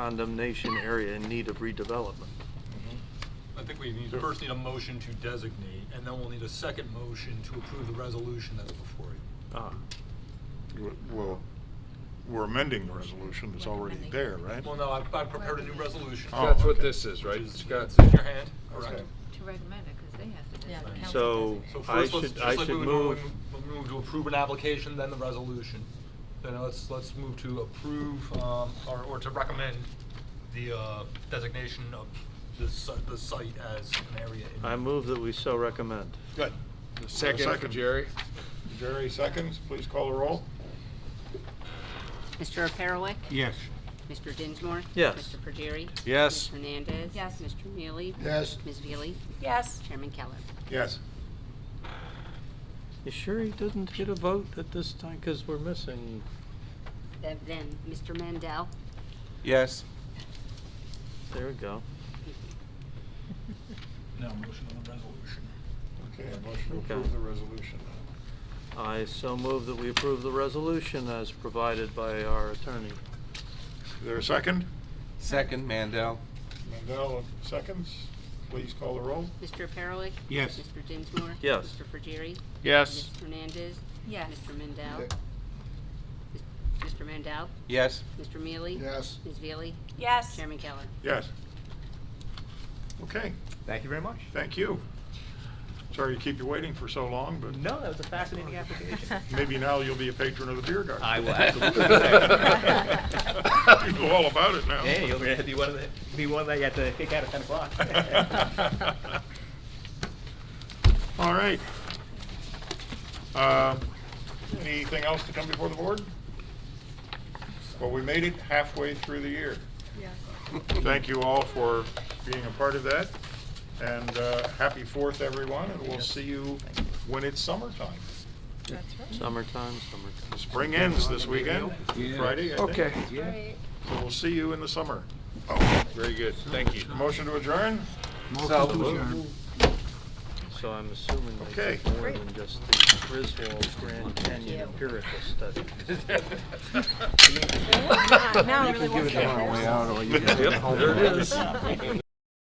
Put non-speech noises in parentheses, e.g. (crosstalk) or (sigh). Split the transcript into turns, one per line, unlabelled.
non-condemnation area in need of redevelopment.
I think we need, first need a motion to designate, and then we'll need a second motion to approve the resolution that's before you.
Ah,
Well, we're amending the resolution that's already there, right?
Well, no, I've, I've prepared a new resolution.
Oh,
That's what
okay.
this is,
which
right?
is-
Scott?
It's in your hand, correct?
Okay.
to recommend it, because they have to
Yeah, the
decide.
council
So-
does it.
So
I
first, let's,
should-
just
I
like we
should
would normally
move-
m- move to approve an application, then the resolution. Then let's, let's move to approve, um, or, or to recommend the, uh, designation of the site, the site as an area. in-
I move that we so recommend.
Good.
Second for Jerry?
Jerry seconds, please call the roll.
Mr. Perelik?
Yes.
Mr. Dinsmore?
Yes.
Mr. Pergeri?
Yes.
Ms. Hernandez?
Yes.
Mr. Mealy?
Yes.
Ms. Veely?
Yes.
Chairman Keller?
Yes.
You sure he didn't get a vote at this time, because we're missing?
Th- Then, Mr. Mandel?
Yes.
There we go.
Now, motion on the resolution.
Okay, a motion to
Okay.
approve the resolution.
I so move that we approve the resolution as provided by our attorney.
Is there a second?
Second, Mandel.
Mandel seconds, please call the roll.
Mr. Perelik?
Yes.
Mr. Dinsmore?
Yes.
Mr. Pergeri?
Yes.
Ms. Hernandez?
(laughs)
Yes.
Mr. Mandel? Mr. Mandel?
Yes. (laughs)
Mr. Mealy?
Yes.
Ms. Veely?
Yes.
Chairman Keller?
Yes. Okay,
Thank you very much.
thank you. Sorry to keep you waiting for so long, but
No, that was a fascinating application.
maybe now you'll be a patron of the beer garden.
I
(laughs)
will absolutely.
You know all about it now.
(laughs) Hey, you're gonna be one of the, be one that you have to kick out at ten o'clock. (laughs)
(laughs) All right. Um, Anything else to come before the board? Well, we made it halfway through the year. Thank you all for being a part of that, and uh, happy Fourth, everyone, and we'll see you when it's summertime.
That's right.
Summertime, summertime.
Spring ends this weekend, Friday, I think.
Okay.
So we'll see you in the summer.
Very good. Thank you.
Motion to adjourn?
So I'm assuming they
Okay.
did more than just the Griswold Grand Canyon empirical study.
Now I really want to.
Way out, or
(laughs)
you
Yep,
there it is.